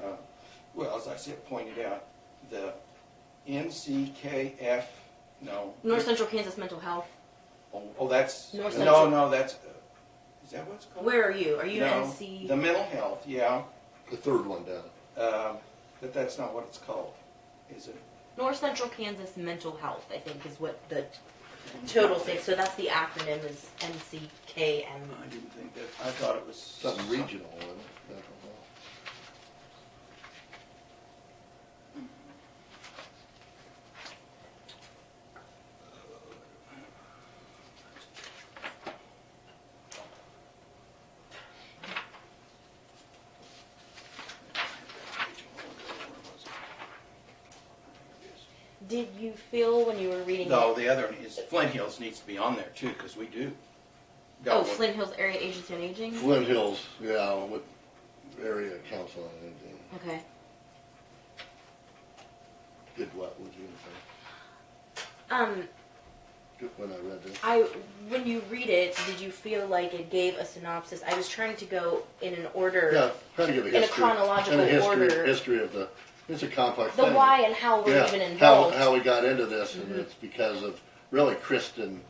uh, as it pointed out, the NCKF, no. North Central Kansas Mental Health. Oh, oh, that's, North no, Central. no, that's, uh, is that what it's called? Where are you? Are you No, NC? The mental health, yeah, The third one down. um, but that's not what it's called, is it? North Central Kansas Mental Health, I think, is what the total thing. So that's the acronym is NCKM. I didn't think that, I thought it was. Something regional, wasn't it? Mental health. Did you feel when you were reading? No, it- the other one is Flint Hills needs to be on there too, because we do. got Oh, one. Flint Hills Area Agency on Aging. Flint Hills, yeah, with area council and everything. Okay. Did what, would you say? Um, Good- When I read this, I when you read it, did you feel like it gave a synopsis? I was trying to go in an order. yeah, try to give a In a history. chronological and a history- order. History of the, it's a complex The thing. why and how we're Yeah, even Mm-hmm. how, involved. how we got into this, and it's because of, really Kristen,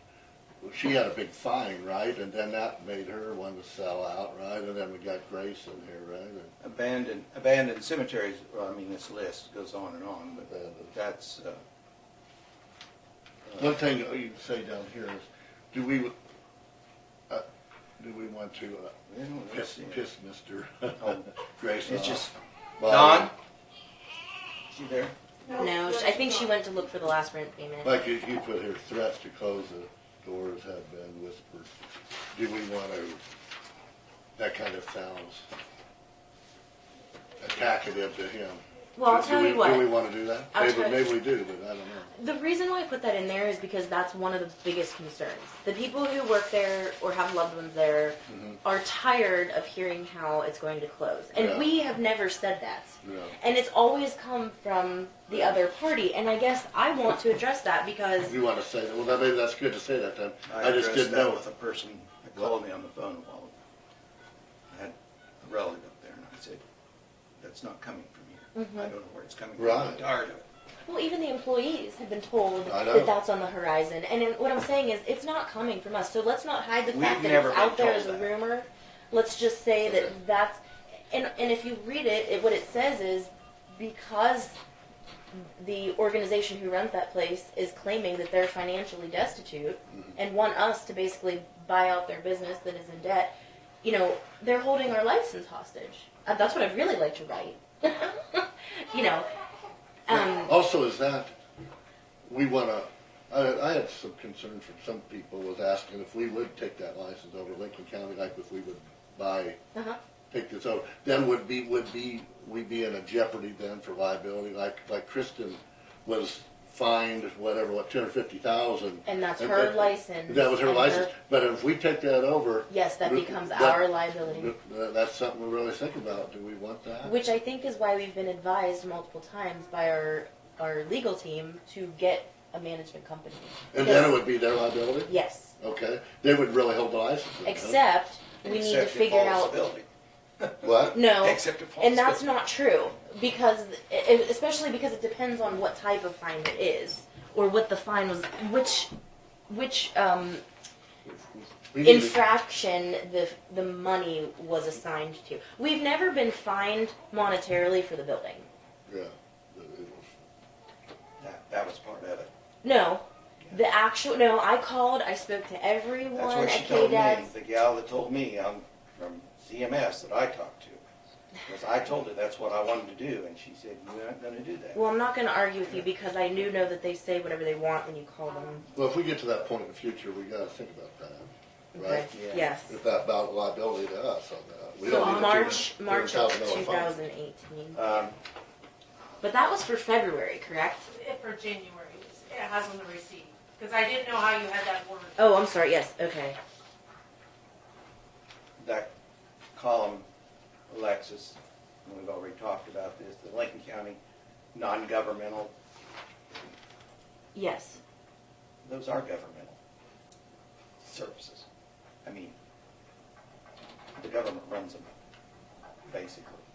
she had a big fine, right? And then that made her want to sell out, right? And then we got Grace in here, right? And Abandoned, abandoned cemeteries, well, I mean, this list goes on and on, but Abandoned. that's, uh, One thing that you can say down here is, do we, uh, do we want to uh, you know, let's piss, see. piss Mr. Grace Oh. It's off? just, by- Don? Is she there? no, she- I think she went to look for the last rent payment. Like you, you put here, threats to close the doors have been whispered. Do we want to, that kind of sounds attackative to him. well, I'll Do- do tell we- you what. Do we want to do that? I'll Maybe, tell you- maybe we do, but I don't know. The reason why I put that in there is because that's one of the biggest concerns. The people who work there or have loved ones there are tired of hearing how it's going to close. And Yeah. we have never said that. No. And it's always come from the other party. And I guess I want to address that because You want to say that? Well, that- maybe that's good to say that then. I just addressed didn't that know. With a person that called me on the phone a while ago. I had a relative up there and I said, that's not coming from Mm-hmm. here. I don't know where it's coming from. I'm Right. tired of it. Well, even the employees have been told I know. that that's on the horizon. And in, what I'm saying is, it's not coming from us. So let's not hide the We've fact that never it's out been there told as a that. rumor. Let's just say Okay. that that's. And, and if you read it, it, what it says is because the organization who runs that place is claiming that they're financially destitute Mm-hmm. and want us to basically buy out their business that is in debt, you know, they're holding our license hostage. Uh, that's what I'd really like to write. you know. Um, Also, is that, we want to, I, I had some concern from some people was asking if we would take that license over Lincoln County, like if we would buy, uh-huh. take this over, then would be, would be, we be in a jeopardy then for liability, like, like Kristen was fined, whatever, what, two hundred fifty thousand? And that's her license That was her and her- license, but if we take that over. Yes, that we- becomes that- our liability. that- That's something we really think about, do we want that? Which I think is why we've been advised multiple times by our, our legal team to get a management company. And then it would be their liability? Yes, Okay, they would really hold the license. wouldn't they? except we need to Except if figure all is out. building. What? No. Except if all And is that's building. not true, because, e- especially because it depends on what type of fine it is, or what the fine was, which, which, um, We need to- infraction the the money was assigned to. We've never been fined monetarily for the building. Yeah. That, that was part of it. No. The actual no, I called, I spoke to everyone That's what she at told me, KDAD's. the gal that told me, um, from CMS that I talked to. Because I told her that's what I wanted to do, and she said, we're not gonna do that. Well, I'm not going to argue with you because I do know that they say whatever they want when you call them. Well, if we get to that point in the future, we gotta think about that, Okay. right? Yeah. Yes. If that about liability to us on that. We So don't need to do March, a March of $200,000 fine. 2018. Um, But that was for February, correct? It for January, it has on the receipt, because I didn't know how you had that word. Oh, I'm sorry. Yes. Okay. that column, Alexis, and we've already talked about this, the Lincoln County non-governmental, Yes. those are governmental services. I mean, the government runs them, basically.